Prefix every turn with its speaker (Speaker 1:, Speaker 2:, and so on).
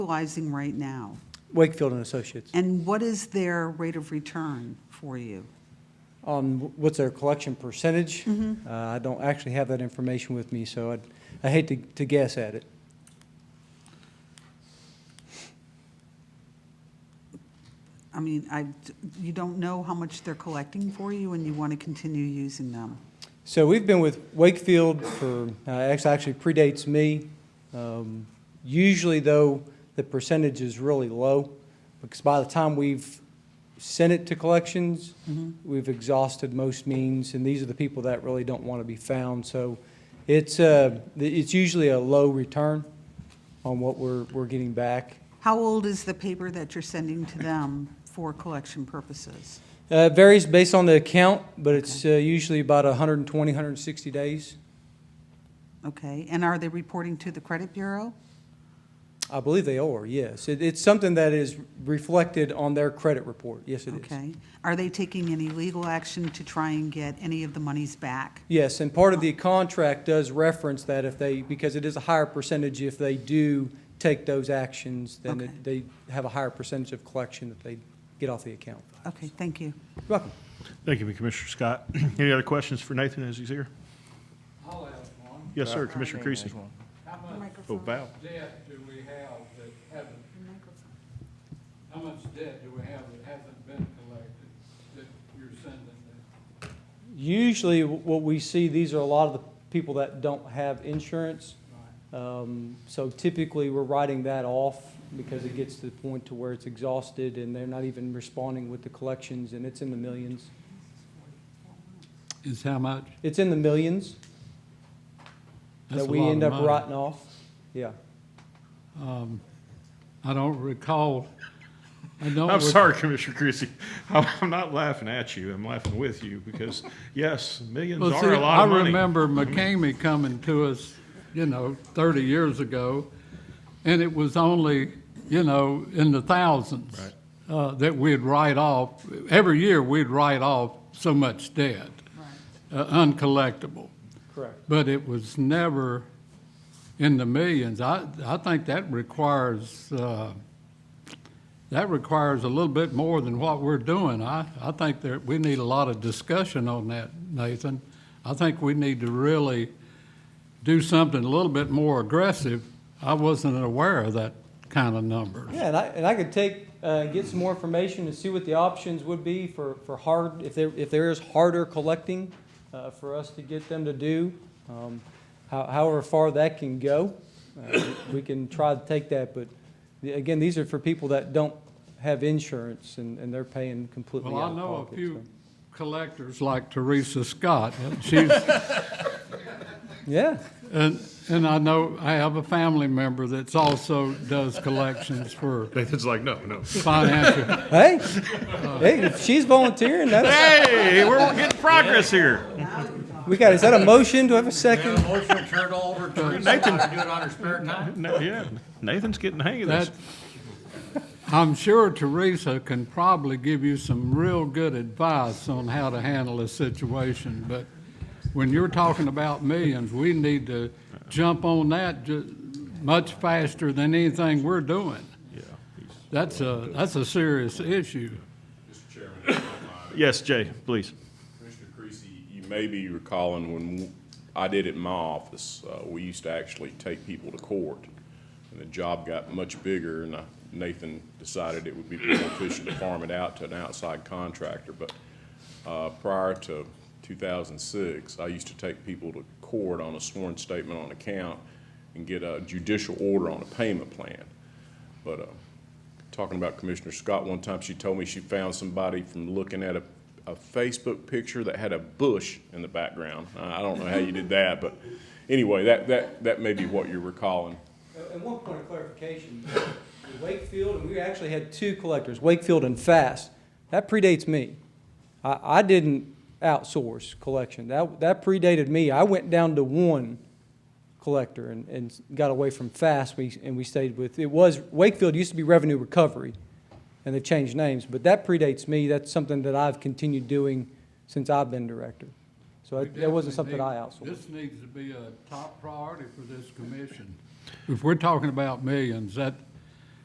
Speaker 1: utilizing right now?
Speaker 2: Wakefield and Associates.
Speaker 1: And what is their rate of return for you?
Speaker 2: On what's their collection percentage? Uh, I don't actually have that information with me, so I'd, I hate to, to guess at it.
Speaker 1: I mean, I, you don't know how much they're collecting for you and you want to continue using them.
Speaker 2: So we've been with Wakefield for, uh, act- actually predates me. Um, Usually, though, the percentage is really low, because by the time we've sent it to collections, we've exhausted most means, and these are the people that really don't want to be found. So it's, uh, it's usually a low return on what we're, we're getting back.
Speaker 1: How old is the paper that you're sending to them for collection purposes?
Speaker 2: Uh, It varies based on the account, but it's uh, usually about 120, 160 days.
Speaker 1: Okay, and are they reporting to the credit bureau?
Speaker 2: I believe they are, yes. It, it's something that is reflected on their credit report. Yes, it is.
Speaker 1: Okay, are they taking any legal action to try and get any of the monies back?
Speaker 2: Yes, and part of the contract does reference that if they, because it is a higher percentage, if they do take those actions, then
Speaker 1: Okay.
Speaker 2: it- they have a higher percentage of collection that they get off the account.
Speaker 1: Okay, thank you.
Speaker 2: You're Welcome.
Speaker 3: Thank you, Commissioner Scott. Any other questions for Nathan as he's here?
Speaker 4: I'll ask one.
Speaker 3: Yes, sir, Commissioner Creasy.
Speaker 4: How much
Speaker 3: Oh, wow.
Speaker 4: debt do we have that haven't, how much debt do we have that hasn't been collected that you're sending them?
Speaker 2: Usually, wh- what we see, these are a lot of the people that don't have insurance. Um, So typically, we're writing that off because it gets to the point to where it's exhausted and they're not even responding with the collections and it's in the millions.
Speaker 4: Is how much?
Speaker 2: It's in the millions that we end up writing off. Yeah.
Speaker 4: I don't recall, I don't.
Speaker 3: Oh, I'm sorry, Commissioner Creasy. I'm, I'm not laughing at you. I'm laughing with you because, yes, millions
Speaker 4: Well,
Speaker 3: are
Speaker 4: see,
Speaker 3: a lot of
Speaker 4: I
Speaker 3: money.
Speaker 4: remember McCamey coming to us, you know, 30 years ago, and it was only, you know, in the thousands
Speaker 3: Right.
Speaker 4: uh, that we'd write off. Every year, we'd write off so much debt, uh, uncollectible.
Speaker 2: Correct.
Speaker 4: But it was never in the millions. I, I think that requires, uh, that requires a little bit more than what we're doing. I, I think that we need a lot of discussion on that, Nathan. I think we need to really do something a little bit more aggressive. I wasn't aware of that kind of number.
Speaker 2: Yeah, and I, and I could take, uh, get some more information and see what the options would be for, for hard, if there, if there is harder collecting, uh, for us to get them to do. Um, how- however far that can go, uh, we can try to take that, but the- again, these are for people that don't have insurance and, and they're paying completely
Speaker 4: Well, I
Speaker 2: out of pocket.
Speaker 4: know a few
Speaker 2: so.
Speaker 4: collectors like Teresa Scott. She's,
Speaker 2: Yeah,
Speaker 4: And, and I know, I have a family member that's also does collections for
Speaker 3: Nathan's like, no, no.
Speaker 4: financial.
Speaker 2: hey, hey, if she's volunteering, that's,
Speaker 3: Hey, we're getting progress here.
Speaker 2: we got, is that a motion? Do I have a second?
Speaker 5: Motion to turn over to Teresa to do it on her spare time?
Speaker 3: No, yeah, Nathan's getting the hang of this.
Speaker 4: That, I'm sure Teresa can probably give you some real good advice on how to handle a situation, but when you're talking about millions, we need to jump on that ju- much faster than anything we're doing.
Speaker 3: Yeah.
Speaker 4: That's a, that's a serious issue.
Speaker 6: Mr. Chairman, if you don't mind,
Speaker 3: Yes, Jay, please.
Speaker 6: Commissioner Creasy, you may be recalling when I did it in my office, uh, we used to actually take people to court. And the job got much bigger, and I- Nathan decided it would be more efficient to farm it out to an outside contractor. But uh, prior to 2006, I used to take people to court on a sworn statement on account and get a judicial order on a payment plan. But uh, talking about Commissioner Scott, one time she told me she found somebody from looking at a, a Facebook picture that had a bush in the background. I I don't know how you did that, but anyway, that, that, that may be what you're recalling.
Speaker 2: And one point of clarification, Wakefield, and we actually had two collectors, Wakefield and Fast. That predates me. I, I didn't outsource collection. That, that predated me. I went down to one collector and, and got away from Fast, we, and we stayed with, it was, Wakefield used to be Revenue Recovery, and they've changed names, but that predates me. That's something that I've continued doing since I've been director. So that- that wasn't something I outsourced.
Speaker 4: This needs to be a top priority for this commission. If we're talking about millions, that,